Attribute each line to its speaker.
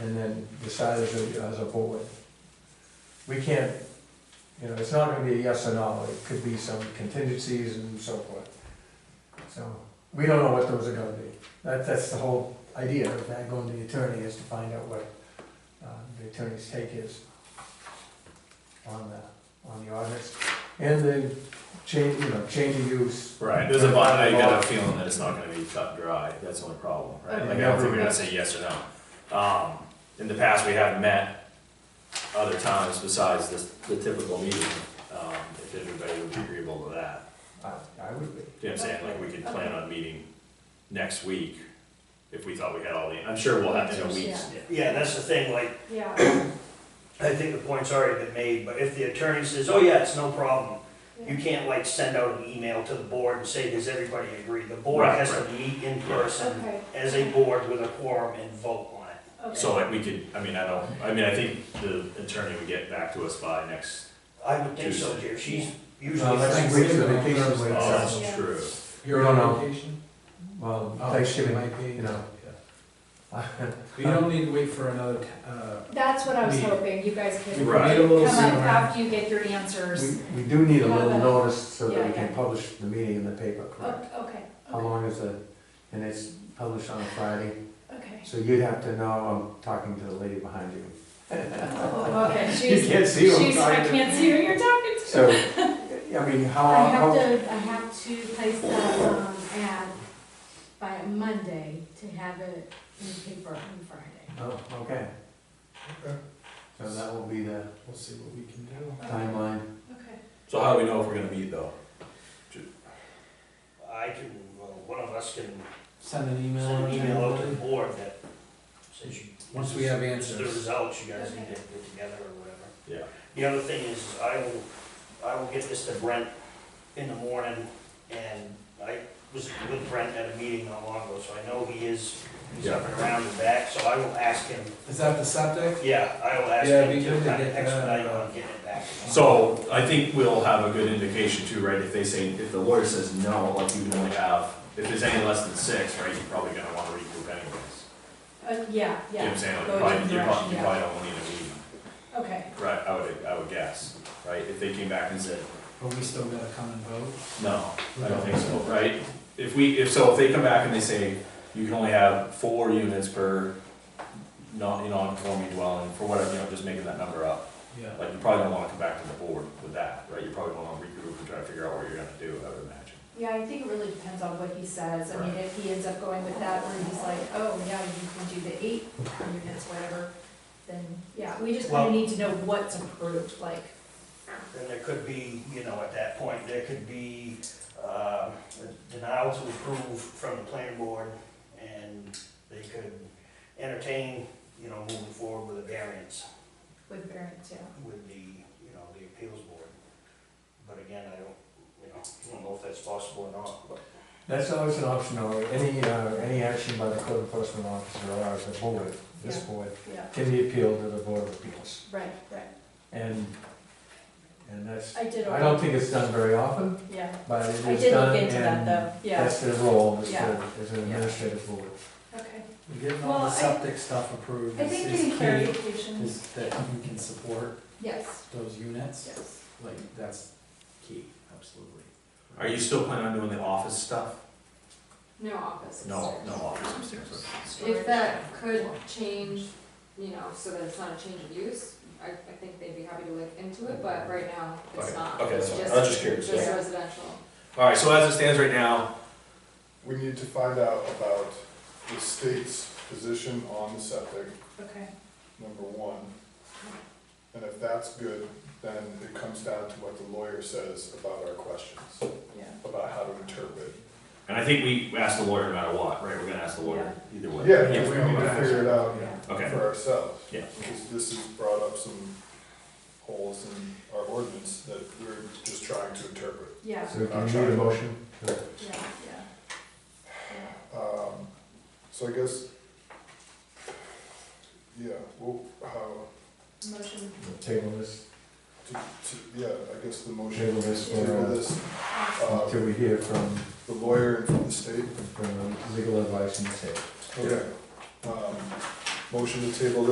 Speaker 1: and then decide as a, as a board. We can't, you know, it's not gonna be a yes or no, it could be some contingencies and so forth. So, we don't know what those are gonna be. That, that's the whole idea of that going to the attorney is to find out what, uh, the attorney's take is on the, on the ordinance. And then change, you know, change of use.
Speaker 2: Right, there's a bond, I got a feeling that it's not gonna be cut and dry, that's the only problem, right? Like, I don't think we're gonna say yes or no. Um, in the past, we have met other times besides this, the typical meeting, um, if everybody would be agreeable to that.
Speaker 1: I, I would be.
Speaker 2: Do you know what I'm saying? Like, we could plan on meeting next week if we thought we had all the, I'm sure we'll have, you know, weeks.
Speaker 3: Yeah, that's the thing, like,
Speaker 4: Yeah.
Speaker 3: I think the point's already been made, but if the attorney says, oh yeah, it's no problem, you can't like send out an email to the board and say, does everybody agree? The board
Speaker 2: Right,
Speaker 3: has to meet in person
Speaker 4: Okay.
Speaker 3: as a board with a quorum and vote on it.
Speaker 4: Okay.
Speaker 2: So like, we could, I mean, I don't, I mean, I think the attorney would get back to us by next,
Speaker 3: I would think so, Jer, she's usually.
Speaker 1: Well, next
Speaker 3: free.
Speaker 1: week's the vacation week,
Speaker 2: oh,
Speaker 1: so,
Speaker 2: that's true.
Speaker 1: You're
Speaker 5: You're
Speaker 1: on
Speaker 5: on vacation?
Speaker 1: well,
Speaker 5: Oh, it
Speaker 1: Thanksgiving,
Speaker 5: might be.
Speaker 1: you know.
Speaker 5: But you don't need to wait for another, t- uh,
Speaker 4: That's what I was
Speaker 5: We-
Speaker 4: hoping, you guys
Speaker 5: we
Speaker 4: could
Speaker 5: can
Speaker 4: come
Speaker 2: Right.
Speaker 5: meet a little
Speaker 4: up
Speaker 5: sooner.
Speaker 4: after you get your answers.
Speaker 1: We, we do need a little notice so that we
Speaker 4: Yeah,
Speaker 1: can
Speaker 4: yeah.
Speaker 1: publish the meeting in the paper, correct?
Speaker 4: O- Okay,
Speaker 1: How long is the, and it's published on a Friday,
Speaker 4: okay.
Speaker 1: so you'd have to know, I'm talking to the lady behind you.
Speaker 4: Oh, Okay,
Speaker 1: You
Speaker 4: she's,
Speaker 1: can't see what I'm
Speaker 4: she's, I
Speaker 1: talking Uh, to.
Speaker 4: can't see who you're talking to.
Speaker 1: So, I mean, how,
Speaker 6: I have
Speaker 1: how,
Speaker 6: to, I have to place the, um, ad by Monday to have it in the paper on Friday.
Speaker 1: oh, okay,
Speaker 5: Okay.
Speaker 1: so that will be the
Speaker 5: We'll see what we can do.
Speaker 1: timeline.
Speaker 4: Okay.
Speaker 2: So how do we know if we're gonna meet though?
Speaker 3: I can, well, one of us can
Speaker 5: Send an email.
Speaker 3: send an
Speaker 5: or
Speaker 3: email out to the
Speaker 5: something.
Speaker 3: board that says you.
Speaker 5: Once we have
Speaker 3: this is The
Speaker 5: answers.
Speaker 3: results, you guys need to get together or whatever.
Speaker 2: Yeah.
Speaker 3: The other thing is, is I will, I will get this to Brent in the morning, and I was with Brent at a meeting not long ago, so I know he is, he's up and around and back, so I will ask him,
Speaker 5: Is that the septic?
Speaker 3: yeah, I will ask
Speaker 5: Yeah,
Speaker 3: him
Speaker 5: be
Speaker 3: to
Speaker 5: good to
Speaker 3: kind of
Speaker 5: get that. uh,
Speaker 3: expedite on getting it back.
Speaker 2: So I think we'll have a good indication too, right, if they say, if the lawyer says no, like you can only have, if there's any less than six, right, you're probably gonna wanna recoup anyways.
Speaker 4: Uh, yeah,
Speaker 2: You know what
Speaker 4: yeah,
Speaker 2: I'm saying, like,
Speaker 4: Go
Speaker 2: you
Speaker 4: a
Speaker 2: probably,
Speaker 4: different
Speaker 2: you probably, you
Speaker 4: direction,
Speaker 2: probably don't wanna need a meeting,
Speaker 4: okay.
Speaker 2: right, I would, I would guess, right, if they came back and said,
Speaker 5: But we still gotta come and vote.
Speaker 2: no, I don't think so, right? If we, if, so if they come back and they say, you can only have four units per non, non-conforming dwelling, for whatever, you know, just making that number up.
Speaker 5: Yeah.
Speaker 2: Like, you probably don't wanna come back to the board with that, right, you probably wanna regroup and try to figure out what you're gonna do, I would imagine.
Speaker 4: Yeah, I think it really depends on what he says. I mean,
Speaker 2: Right.
Speaker 4: if he ends up going with that, where he's like, oh, yeah, you can do the eight units, whatever, then, yeah, we just kind
Speaker 3: Well-
Speaker 4: of need to know what's approved, like,
Speaker 3: Then there could be, you know, at that point, there could be, um, a denial to approve from the planning board, and they could entertain, you know, moving forward with a variance.
Speaker 4: with variance, yeah.
Speaker 3: with the, you know, the appeals board. But again, I don't, you know, I don't know if that's possible or not, but.
Speaker 1: That's always an option, though, any, uh, any action by the code enforcement officer or the board, this
Speaker 4: Yeah.
Speaker 1: board,
Speaker 4: Yeah,
Speaker 1: can be appealed to the board of appeals.
Speaker 4: right, right.
Speaker 1: And, and that's,
Speaker 4: I did.
Speaker 1: I don't think it's done very often,
Speaker 4: Yeah,
Speaker 1: but it is
Speaker 4: I
Speaker 1: done.
Speaker 4: did look into that
Speaker 1: and
Speaker 4: though, yeah,
Speaker 1: That's their role, is
Speaker 4: Yeah.
Speaker 1: to, is an
Speaker 4: Yeah.
Speaker 1: administrative board.
Speaker 4: okay.
Speaker 5: We're getting
Speaker 4: Well,
Speaker 5: all
Speaker 4: I-
Speaker 5: the septic stuff approved.
Speaker 4: I
Speaker 5: Is-
Speaker 4: think
Speaker 5: is
Speaker 4: getting
Speaker 5: key
Speaker 4: clarifications,
Speaker 5: Is that you can support
Speaker 4: yes,
Speaker 5: those units,
Speaker 4: yes.
Speaker 5: like, that's key, absolutely.
Speaker 2: Are you still planning on doing the office stuff?
Speaker 6: No office
Speaker 2: No,
Speaker 6: upstairs.
Speaker 2: no office upstairs.
Speaker 6: If that could change, you know, so that it's not a change of use, I, I think they'd be happy to look into it, but right now, it's
Speaker 2: Okay,
Speaker 6: not.
Speaker 2: okay, that's
Speaker 6: It's
Speaker 2: fine.
Speaker 6: just-
Speaker 2: I was just curious,
Speaker 6: Just
Speaker 2: yeah.
Speaker 6: residential.
Speaker 2: All right, so as it stands right now,
Speaker 7: We need to find out about the state's position on the septic,
Speaker 4: Okay,
Speaker 7: number one. And if that's good, then it comes down to what the lawyer says about our questions,
Speaker 4: yeah.
Speaker 7: about how to interpret.
Speaker 2: and I think we asked the lawyer no matter what, right? We're gonna ask the lawyer either way.
Speaker 7: Yeah,
Speaker 2: we're
Speaker 7: because we
Speaker 2: gonna
Speaker 7: need to
Speaker 2: ask.
Speaker 7: figure it out
Speaker 2: Okay,
Speaker 7: for ourselves.
Speaker 2: Yeah.
Speaker 7: Because this has brought up some holes in our ordinance that we're just trying to interpret.
Speaker 4: Yeah,
Speaker 1: So can you need a motion?
Speaker 4: yeah, yeah.
Speaker 7: Um, so I guess, yeah, well, how,
Speaker 4: Motion,
Speaker 1: Table this,
Speaker 7: to, to, yeah, I guess the motion.
Speaker 1: table this for,
Speaker 7: table
Speaker 1: uh,
Speaker 7: this uh,
Speaker 1: until we hear from,
Speaker 7: the lawyer and from the state.
Speaker 1: from legal advice and the state.
Speaker 7: Okay. Um, Motion to table